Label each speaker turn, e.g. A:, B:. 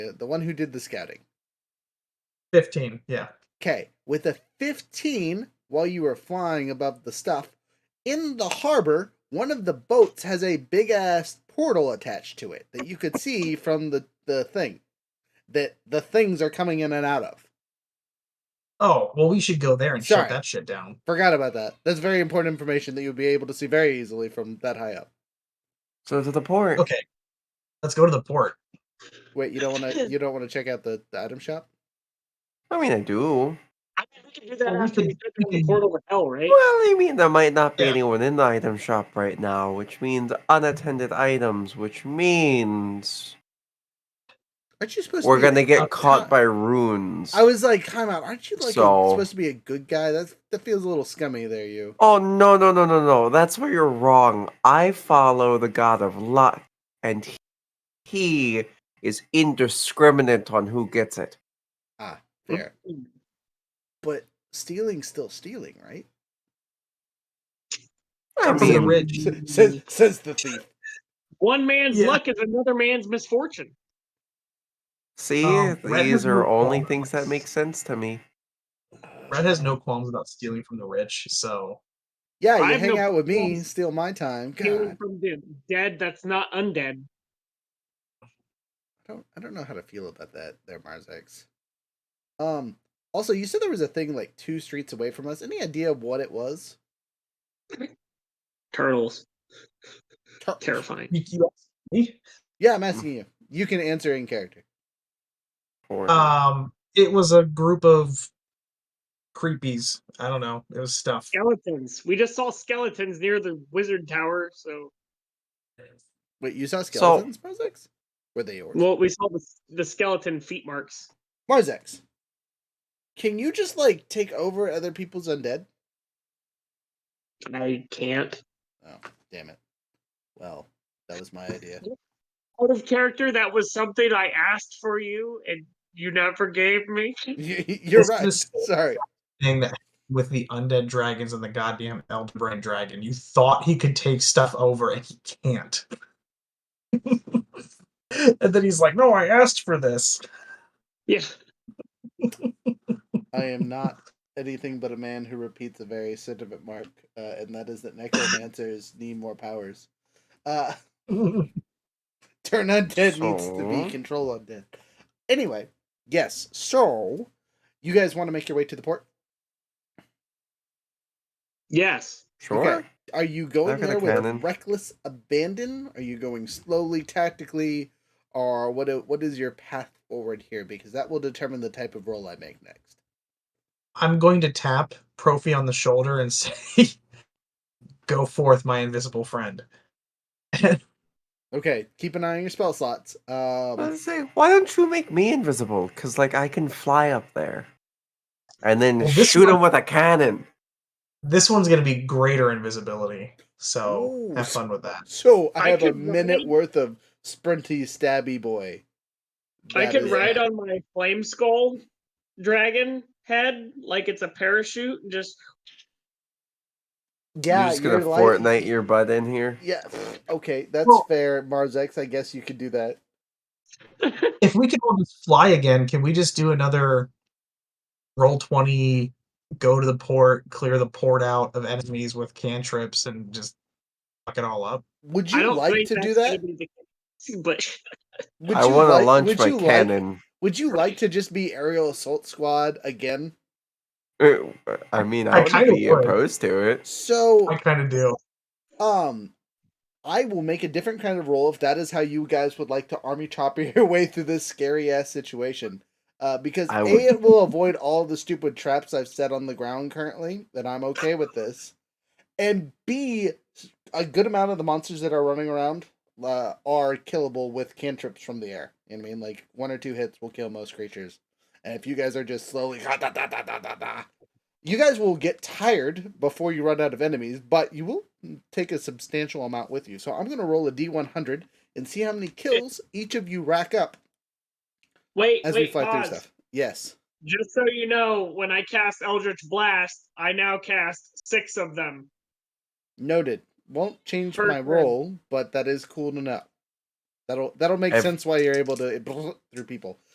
A: the the one who did the scouting.
B: 15, yeah.
A: Okay, with a 15 while you were flying above the stuff in the harbor, one of the boats has a big ass portal attached to it that you could see from the the thing that the things are coming in and out of.
B: Oh, well, we should go there and
A: Sorry.
B: shut that shit down.
A: Forgot about that. That's very important information that you'll be able to see very easily from that high up.
C: So to the port.
B: Okay. Let's go to the port.
A: Wait, you don't want to you don't want to check out the, the item shop?
C: I mean, I do.
D: I mean, we can do that
B: Well, we
D: after we
B: could-
D: get through
B: we
D: the
B: could-
D: portal to hell, right?
C: Well, I mean, there might not be
B: Yeah.
C: anyone in the item shop right now, which means unattended items, which means
A: Aren't you supposed
C: we're
A: to be a-
C: gonna
A: a
C: get caught
A: co-
C: by runes.
A: uh, I was like, time out. Aren't you like a-
C: So-
A: supposed to be a good guy? That's that feels a little scummy there, you.
C: Oh no no no no no! That's where you're wrong. I follow the god of luck, and he, he is indiscriminate on who gets it.
A: There. But stealing's still stealing, right?
C: I
B: Come to the
C: mean,
B: ridge.
A: S- says says the thief.
D: One man's
B: Yeah.
D: luck is another man's misfortune.
C: see,
A: oh,
B: Um, Red
C: these
B: has
C: are
B: no
C: only
B: qualms.
C: things that make sense to me.
B: Brad has no qualms about stealing from the rich, so
A: Yeah, you
D: I have
A: hang
D: no
A: out with me,
D: problem
A: steal my time. God,
D: Stealing from the dead that's not undead.
A: I don't I don't know how to feel about that there, Mars X. Um also you said there was a thing like two streets away from us. Any idea of what it was?
D: Turtles.
A: Tur-
D: Terrifying.
B: You- you asked me?
A: Yeah, I'm asking you. You can answer in character.
C: Or-
A: Uh,
B: Um, it was a group of creepies. I don't know. It was stuff.
D: Skeletons. We just saw skeletons near the wizard tower, so
A: Wait, you saw skeletons, Mars X? Were they yours?
D: well we saw the, the skeleton feet marks.
A: Mars X. Can you just like take over other people's undead?
D: I can't.
A: Oh, damn it. Well, that was my idea.
D: Out of character, that was something I asked for you and you never gave me.
A: You- You're
B: This
A: right.
B: is-
A: Sorry.
B: Thing that with the undead dragons and the goddamn elder brain dragon, you thought he could take stuff over and he can't. and then he's like, "No, I asked for this."
D: Yeah.
A: I am not anything but a man who repeats a very sentiment mark, uh, and that is that necromancers need more powers. Uh, turn undead needs to
C: So?
A: be control undead. Anyway, yes. So, you guys want to make your way to the port?
D: Yes.
C: sure.
A: okay. Are you going
C: for the
A: there with
C: cannon.
A: reckless abandon? Are you going slowly, tactically, or what? i- What is your path forward here? Because that will determine the type of role I make next.
B: I'm going to tap Profi on the shoulder and say, "Go forth, my invisible friend."
A: Okay, keep an eye on your spell slots.
C: I
A: Um,
C: was gonna say, why don't you make me invisible? Cause like I can fly up there, and then
B: Well, this
C: shoot him
B: one-
C: with a cannon.
B: This one's going to be greater invisibility, so
A: Ooh.
B: have fun with that.
A: so I
D: I
A: have a
D: can
A: minute
D: ride-
A: worth of sprinty stabby boy.
D: I
A: That
D: can
A: is-
D: ride on my flame skull dragon head like it's a parachute and just
A: Yeah,
C: you're just gonna
A: like-
C: Fortnite your butt in here.
A: Yeah. Okay, that's
B: Well-
A: fair, Mars X. I guess you could do that.
B: if we can all just fly again, can we just do another roll twenty, go to the port, clear the port out of enemies with cantrips, and just fuck it all up?
A: Would
D: I
A: you
D: don't
A: like
D: think
A: to do
D: that's gonna
A: that?
D: be the case, But
A: Would
C: I
A: you
C: want to
A: like-
C: launch
A: would
C: my
A: you like-
C: cannon.
A: Would you like to just be aerial assault squad again?
C: Uh, I mean,
B: I
C: I, wouldn't
B: kinda
C: be
B: would.
C: opposed to it.
A: So
B: I kind of do.
A: um I will make a different kind of roll if that is how you guys would like to army chopper your way through this scary ass situation. Uh, because
C: I
A: A,
C: would.
A: it will avoid all the stupid traps I've set on the ground currently, that I'm okay with this. And B, s- a good amount of the monsters that are running around uh, are killable with cantrips from the air. You know what I mean? Like, one or two hits will kill most creatures. And if you guys are just slowly, "Ha, da, da, da, da, da, da," you guys will get tired before you run out of enemies, but you will take a substantial amount with you. So I'm going to roll a d100 and see how many kills each of you rack up
D: wait,
A: as
D: wait,
A: we fly
D: pause.
A: through stuff. Yes.
D: Just so you know, when I cast Eldritch Blast, I now cast six of them.
A: Noted. Won't change my
D: Perfect.
A: roll, but that is cool to know. That'll that'll make
C: Ev-
A: sense why you're able to through people.